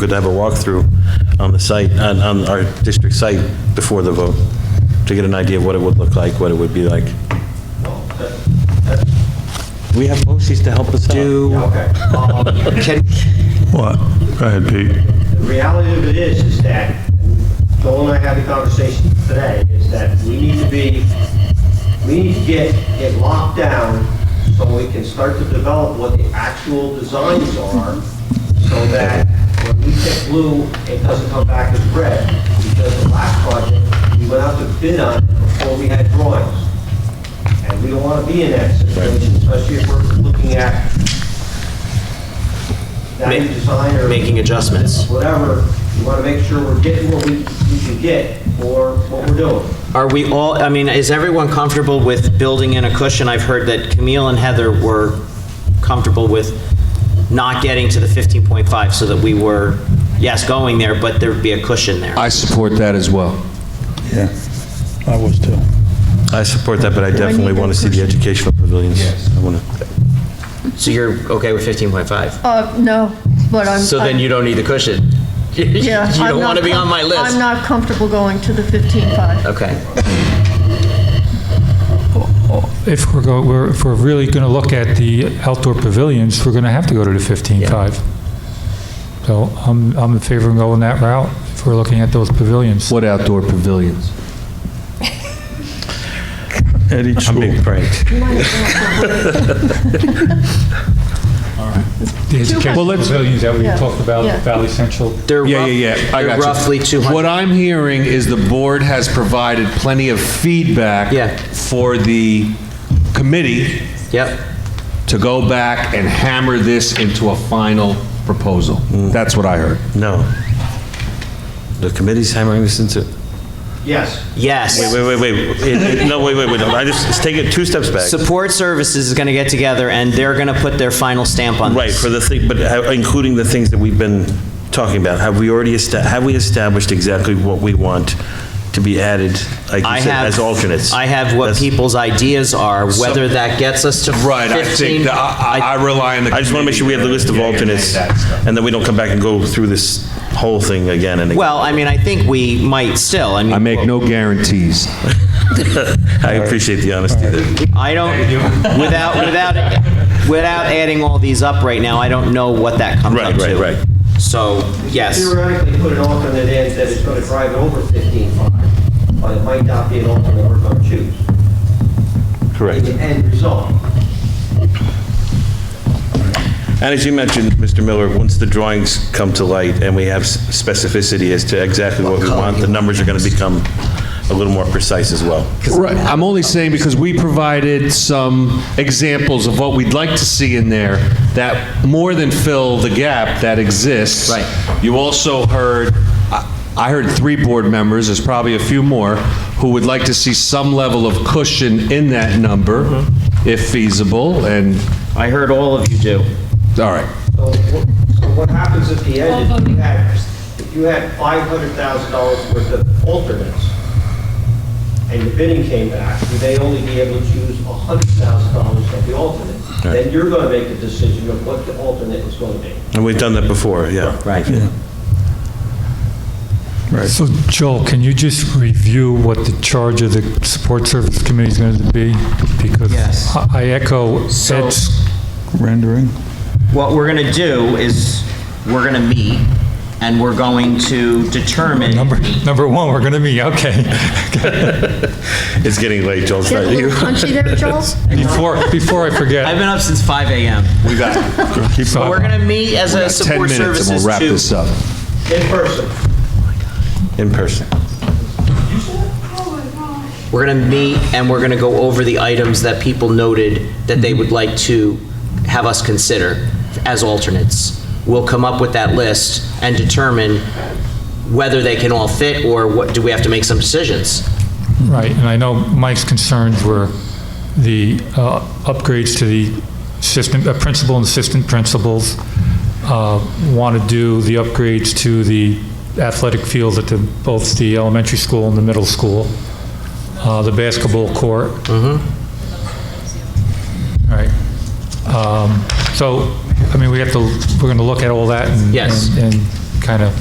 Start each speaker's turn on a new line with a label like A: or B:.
A: good to have a walkthrough on the site, on, on our district site before the vote, to get an idea of what it would look like, what it would be like. We have BOCES to help us do.
B: Okay. Um,
C: What? Go ahead, Pete.
B: The reality of it is, is that, Joel and I had a conversation today, is that we need to be, we need to get it locked down so we can start to develop what the actual designs are, so that when we pick blue, it doesn't come back as red. Because the last project, we went out to bid on it before we had drawings. And we don't want to be in that situation, especially if we're looking at value design or
D: making adjustments.
B: whatever, we want to make sure we're getting what we, we can get for what we're doing.
D: Are we all, I mean, is everyone comfortable with building in a cushion? I've heard that Camille and Heather were comfortable with not getting to the 15.5 so that we were, yes, going there, but there'd be a cushion there.
E: I support that as well.
C: Yeah, I was too.
A: I support that, but I definitely want to see the educational pavilions. I want to.
D: So you're okay with 15.5?
F: Uh, no, but I'm.
D: So then you don't need the cushion?
F: Yeah,
D: You
F: I'm
D: don't
F: not
D: want to be on my
F: com-
D: list?
F: I'm not comfortable going to the 15.5.
D: Okay.
G: If we're go, we're, if we're really going to look at the outdoor pavilions, we're going to have to go to the 15.5. So I'm, I'm in favor of going that route if we're looking at those pavilions.
E: What outdoor pavilions?
C: At each
A: I'm
C: school.
A: being pranked.
G: The educational
F: Well,
E: let's-
G: pavilions that we
F: Yeah.
G: talked about,
F: Yeah.
G: Valley Central.
D: They're
E: Yeah,
D: rough-
E: yeah, yeah. I
D: they're
E: got you.
D: roughly 200.
E: What I'm hearing is the board has provided plenty of feedback
D: Yeah.
E: for the committee
D: Yep.
E: to go back and hammer this into a final proposal. That's what I heard.
A: No. The committee's hammering this into.
B: Yes.
D: Yes.
A: Wait, wait, wait. It- it- No, wait, wait, wait. I just, let's take it two steps back.
D: Support Services is going to get together and they're going to put their final stamp on
A: Right,
D: this.
A: for the thing, but how- including the things that we've been talking about, have we already, esta- have we established exactly what we want to be added, like
D: I
A: you said,
D: have-
A: as alternates?
D: I have what
A: That's-
D: people's ideas are, whether that gets us to 15.
E: Right, I think, that I I- I rely on the.
A: I just want to make sure we have the list of
E: committee. Yeah, yeah,
A: alternates,
E: yeah, that stuff.
A: and then we don't come back and go through this whole thing again and again.
D: Well, I mean, I think we might still, I mean.
E: I make no guarantees.
A: I appreciate the honesty there.
D: I don't, without, without, without adding all these up right now, I don't know what that comes
A: Right,
D: up to.
A: right, right.
D: So, yes,
B: Theoretically, put an alternate in that is going to drive it over 15.5, but it might not be an alternate we're going to choose.
A: Correct.
B: The end result.
A: And as you mentioned, Mr. Miller, once the drawings come to light and we have s- specificity as to exactly what we want, the numbers are going to become a little more precise as well.
E: Right, I'm only saying because we provided some examples of what we'd like to see in there that more than fill the gap that exists.
D: Right.
E: You also heard, I I heard three board members, there's probably a few more, who would like to see some level of cushion in that number,
D: Mm-hmm.
E: if feasible, and,
D: I heard all of you do.
E: all right.
B: So wh- so what happens at the end if you had, if you had $500,000 worth of alternates and the bidding came back, would they only be able to choose $100,000 of the alternate? Then you're going to make the decision of what the alternate is going to be.
A: And we've done that before, yeah.
D: Right.
G: So Joel, can you just review what the charge of the support service committee is going to be? Because
D: Yes.
G: I- I echo
D: So-
G: Ed's rendering.
D: What we're going to do is, we're going to meet, and we're going to determine.
G: Number, number one, we're going to be, okay.
A: It's getting late, Joel. it's
F: Get a
A: not you.
F: little punchy there, Charles?
G: Before, before I
D: I've
G: forget.
D: been up since 5 AM.
E: We got, we
G: so-
D: But we're going to meet as a
E: got 10
D: support
E: minutes and
D: services
E: we'll wrap
D: to-
E: this up.
B: In person.
A: In person.
D: We're going to meet and we're going to go over the items that people noted that they would like to have us consider as alternates. We'll come up with that list and determine whether they can all fit or what, do we have to make some decisions?
G: Right, and I know Mike's concerns were the uh, upgrades to the assistant, uh, principal and assistant principals, want to do the upgrades to the athletic fields at the, both the elementary school and the middle school, uh, the basketball court. Mm-hmm. Right. Um, So, I mean, we have to, we're going to look at all that and.
D: Yes.
G: And and kind of